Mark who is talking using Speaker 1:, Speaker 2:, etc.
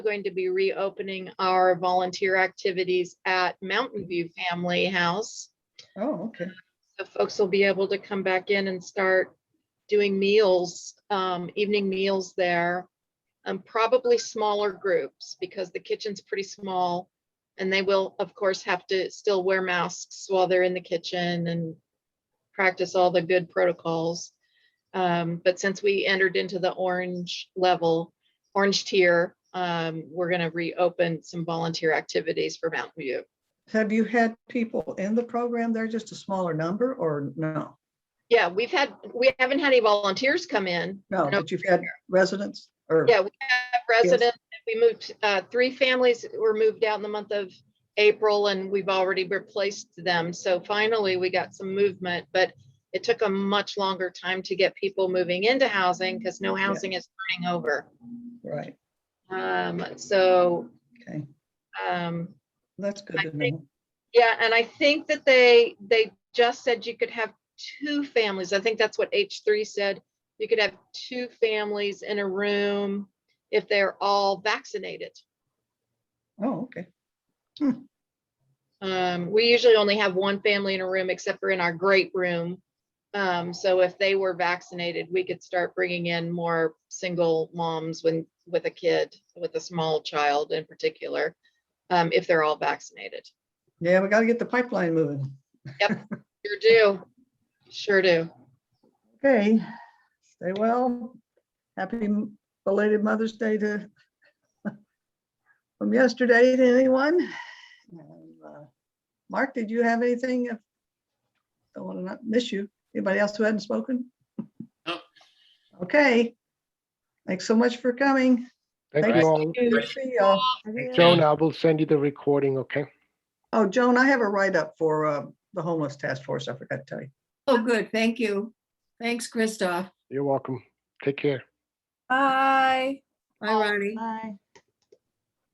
Speaker 1: going to be reopening our volunteer activities at Mountain View Family House.
Speaker 2: Oh, okay.
Speaker 1: So folks will be able to come back in and start doing meals, um, evening meals there. Um, probably smaller groups because the kitchen's pretty small. And they will, of course, have to still wear masks while they're in the kitchen and practice all the good protocols. Um, but since we entered into the orange level, orange tier, um, we're gonna reopen some volunteer activities for Mountain View.
Speaker 2: Have you had people in the program there, just a smaller number or no?
Speaker 1: Yeah, we've had, we haven't had any volunteers come in,
Speaker 2: No,
Speaker 1: No.
Speaker 2: but you've had residents or?
Speaker 1: Yeah, we have residents, we moved, uh, three families were moved out in the month of April and we've already replaced them. So finally, we got some movement, but it took a much longer time to get people moving into housing because no housing is turning over.
Speaker 2: Right,
Speaker 1: Um, so,
Speaker 2: okay.
Speaker 1: um,
Speaker 2: That's good
Speaker 1: I
Speaker 2: to
Speaker 1: think-
Speaker 2: know.
Speaker 1: yeah, and I think that they, they just said you could have two families. I think that's what H three said. You could have two families in a room if they're all vaccinated.
Speaker 2: Oh, okay.
Speaker 1: Um, we usually only have one family in a room except for in our great room. Um, so if they were vaccinated, we could start bringing in more single moms when, with a kid, with a small child in particular, um, if they're all vaccinated.
Speaker 2: Yeah, we gotta get the pipeline moving.
Speaker 1: Sure do. Sure do.
Speaker 2: Okay, stay well. Happy m- belated Mother's Day to from yesterday to anyone. And, uh, Mark, did you have anything? Don't want to not miss you. Anybody else who hadn't spoken?
Speaker 3: No.
Speaker 2: Okay. Thanks so much for coming.
Speaker 4: Thank
Speaker 2: Thanks.
Speaker 4: you all.
Speaker 2: Good to See y'all.
Speaker 4: Joan, I will send you the recording, okay?
Speaker 2: Oh, Joan, I have a write-up for uh, the homeless task force. I forgot to tell you.
Speaker 5: Oh, good. Thank you. Thanks, Christoph.
Speaker 4: You're welcome. Take care.
Speaker 6: Bye.
Speaker 5: Bye, Ronnie.
Speaker 7: Bye.